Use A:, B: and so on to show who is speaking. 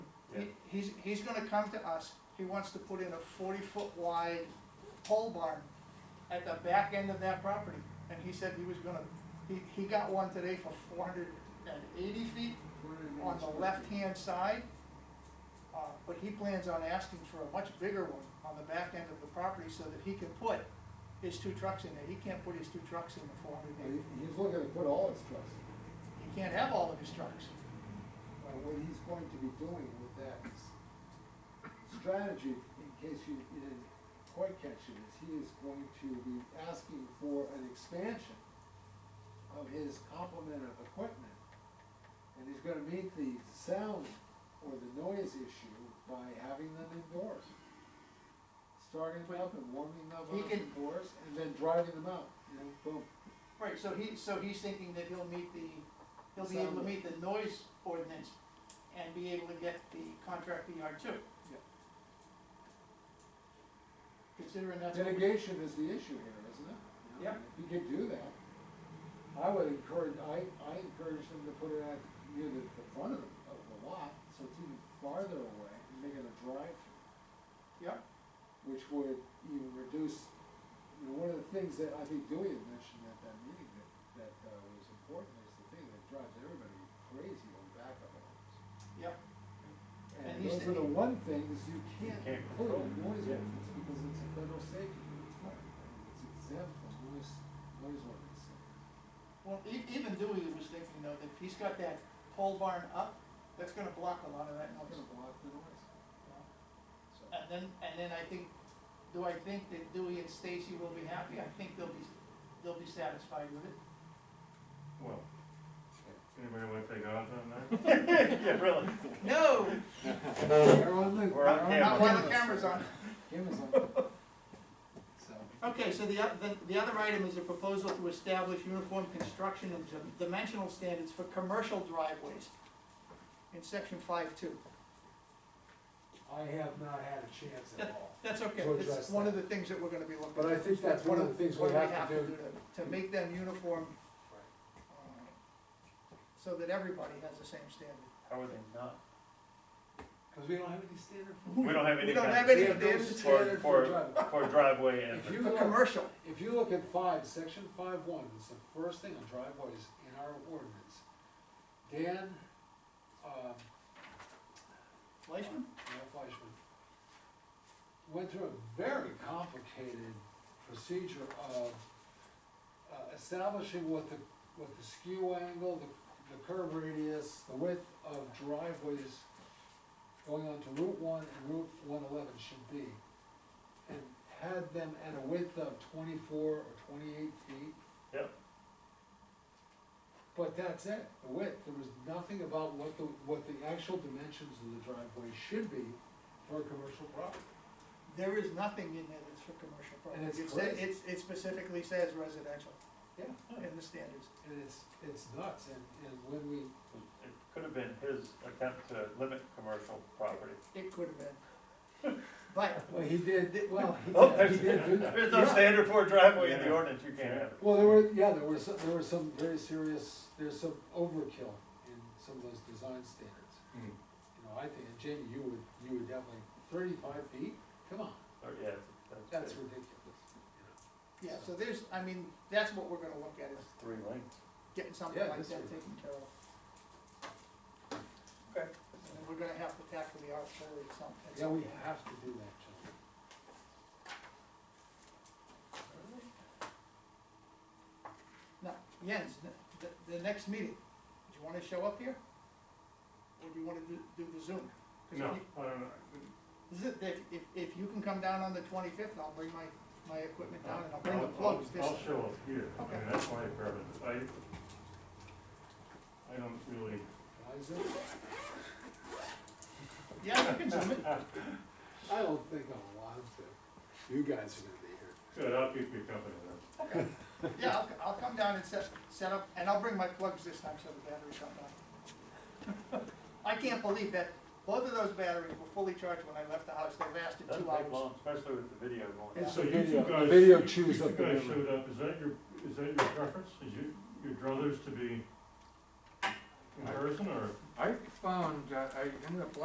A: He's, he's gonna come to us, he wants to put in a forty-foot wide pole barn at the back end of that property. And he said he was gonna, he, he got one today for four hundred and eighty feet on the left-hand side. Uh, but he plans on asking for a much bigger one on the back end of the property so that he can put his two trucks in there. He can't put his two trucks in the four hundred
B: Well,
A: and eighty.
B: he- He's looking to put all his trucks,
A: He can't have all of his trucks.
B: but what he's going to be doing with that s- strategy, in case you didn't quite catch it, is he is going to be asking for an expansion of his complement of equipment. And he's gonna meet the sound or the noise issue by having them indoors. Starting them up and warming them
A: He
B: up
A: can-
B: indoors, and then driving them out, you know, boom.
A: Right, so he, so he's thinking that he'll meet the, he'll be able to
B: Sound.
A: meet the noise ordinance and be able to get the contractor yard too.
B: Yeah.
A: Considering that's. what we-
B: Mitigation is the issue here, isn't it? You know,
A: Yep.
B: If you could do that, I would encourage, I, I encourage them to put it at, near the, the front of the, of the lot, so it's even farther away, and make it a drive-through,
A: Yeah,
B: which would even reduce, you know, one of the things that I think Dewey had mentioned at that meeting that, that uh, was important is the thing that drives everybody crazy on backup alarms.
A: yeah. And
B: And
A: he's
B: those are the
A: thinking-
B: one things you can't
C: Can't
B: put
C: control.
B: on noise ordinance, because it's a federal safety requirement, it's exempt from noise, noise ordinance.
A: Well, e- even Dewey was thinking though, that if he's got that pole barn up, that's gonna block a lot of that
B: It's not
A: noise.
B: gonna block the noise, so.
A: And then, and then I think, do I think that Dewey and Stacy will be happy? I think they'll be, they'll be satisfied with it.
C: Well, anybody wanna take odds on that? Yeah, really.
A: No,
B: They're on the,
C: We're on
B: they're
C: camera.
A: not while the camera's on.
B: Camera's on. So,
A: Okay, so the, oth- the, the other item is a proposal to establish uniform construction and dim- dimensional standards for commercial driveways in section five two.
D: I have not had a chance at all.
A: That's okay,
D: To
A: it's
D: address
A: one of
D: that.
A: the things that we're gonna be looking at.
D: But I think that's one of the things we
A: What do
D: have to do.
A: To to make them uniform, uh, so that everybody has the same standard.
C: How are they not?
D: Cause we don't have any standard for.
C: We don't have any
A: We don't
C: kind
A: have
C: of
A: any
D: We have no
A: standards
C: for,
D: standard for
C: for,
D: driveway.
C: for driveway and,
D: If you
A: for
D: look,
A: commercial.
D: if you look at five, section five one, it's the first thing on driveways in our ordinance. Dan, um,
A: Fleischman?
D: Mayor Fleischman, went through a very complicated procedure of uh, establishing what the, what the skew angle, the, the curve radius, the width of driveways going onto Route one and Route one eleven should be. And had them at a width of twenty-four or twenty-eight feet,
C: yep,
D: but that's it, the width, there was nothing about what the, what the actual dimensions of the driveway should be for a commercial property.
A: There is nothing in there that's for commercial
D: And it's
A: property. It says,
D: crazy.
A: it's, it specifically says residential
D: Yeah.
A: in the standards.
D: And it's, it's nuts, and, and when we,
C: it could have been his attempt to limit commercial property.
A: It could have been. But
D: well, he did, well, he
C: Oh,
D: did,
C: there's,
D: he did do
C: there's
D: that.
C: no
D: Yeah.
C: standard for a driveway in the
E: Yeah.
C: ordinance, you can't have it.
D: Well, there were, yeah, there were some, there were some very serious, there's some overkill in some of those design standards. You know, I think, and Jamie, you would, you would definitely, thirty-five feet, come on,
C: Or, yeah,
D: that's
C: that's,
D: ridiculous.
A: Yeah, so there's, I mean, that's what we're gonna look at, is
C: that's three lanes.
A: getting something
D: Yeah,
A: like that
D: this is-
A: taken care of.
C: Okay.
A: And then we're gonna have to tackle the R four or something.
D: Yeah, we have to do that, John.
A: Now, Jens, the, the- the next meeting, do you wanna show up here? Or do you wanna do, do the Zoom? 'Cause if
C: No,
A: you-
C: I don't know,
A: Is it, if, if, if you can come down on the twenty-fifth, I'll bring my, my equipment down and I'll bring the
C: I'll-
A: plugs
C: I'll-
A: this.
C: I'll show up here, I
A: Okay.
C: mean, that's my preference, I, I don't really,
D: Can I zoom?
A: Yeah, you can zoom it.
D: I don't think I want to. You guys are gonna be here.
C: good, I'll keep you company then.
A: Okay. Yeah, I'll, I'll come down and set, set up, and I'll bring my plugs this time so the batteries come down. I can't believe that both of those batteries were fully charged when I left the house. They lasted
C: Doesn't
A: two
C: take
A: hours.
C: long, especially with the video going.
A: Yeah.
C: on.
A: So
C: you
D: Video-
C: two guys-
D: video
C: you-
D: chews
C: you
D: up the
C: guys
D: memory.
C: showed up, is that your, is that your preference, is you, your druthers to be in person, or?
E: I found, uh, I ended up